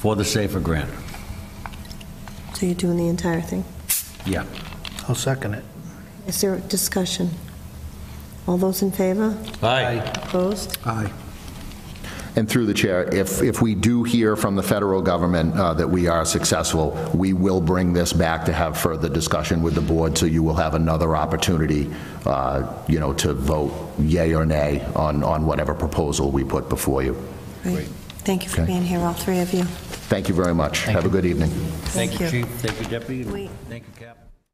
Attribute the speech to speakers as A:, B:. A: for the SAFER grant.
B: So you're doing the entire thing.
A: Yeah.
C: I'll second it.
B: Is there discussion? All those in favor?
A: Aye.
B: Opposed?
C: Aye.
D: And through the chair, if, if we do hear from the federal government uh, that we are successful, we will bring this back to have further discussion with the board, so you will have another opportunity, uh, you know, to vote yay or nay on, on whatever proposal we put before you.
B: Great. Thank you for
D: Okay.
B: being here, all three of you.
D: Thank you very much. Have a good evening.
A: Thank you,
B: you.
A: Chief. Thank you, Deputy.
B: Wait.
A: Thank you, Captain.